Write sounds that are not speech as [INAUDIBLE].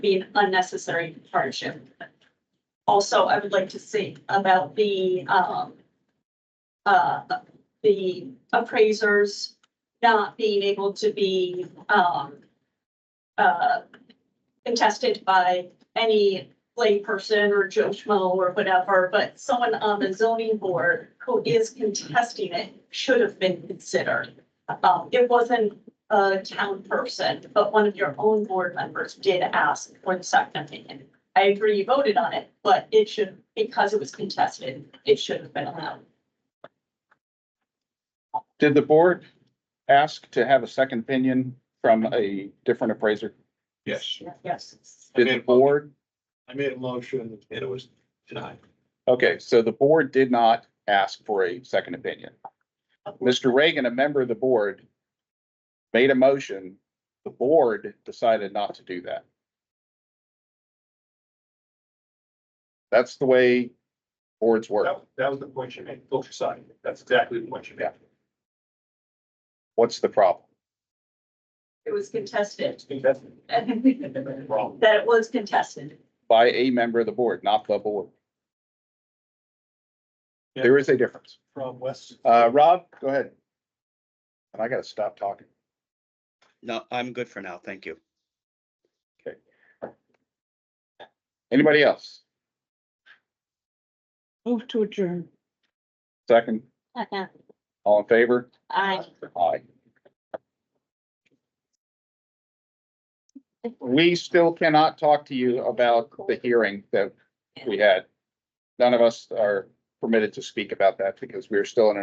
be an unnecessary hardship. Also, I would like to see about the, um, uh, the appraisers not being able to be, um, uh, contested by any layperson or Joe Schmo or whatever, but someone on the zoning board who is contesting it should have been considered. Um, it wasn't a town person, but one of your own board members did ask for the second opinion. I agree you voted on it, but it should, because it was contested, it should have been allowed. Did the board ask to have a second opinion from a different appraiser? Yes, Yes. Did the board? I made a motion and it was denied. Okay, so the board did not ask for a second opinion. Mr. Reagan, a member of the board, made a motion. The board decided not to do that. That's the way boards work. That, that was the point you made, both sides. That's exactly the point you made. What's the problem? It was contested. [LAUGHS] It's been tested. That Wrong. it was contested. By a member of the board, not the board. There is a difference. From West. Uh, Rob, go ahead. And I gotta stop talking. No, I'm good for now. Thank you. Anybody else? Move to adjourn. Second, all in favor? Aye. Aye. We still cannot talk to you about the hearing that we had. None of us are permitted to speak about that because we're still in a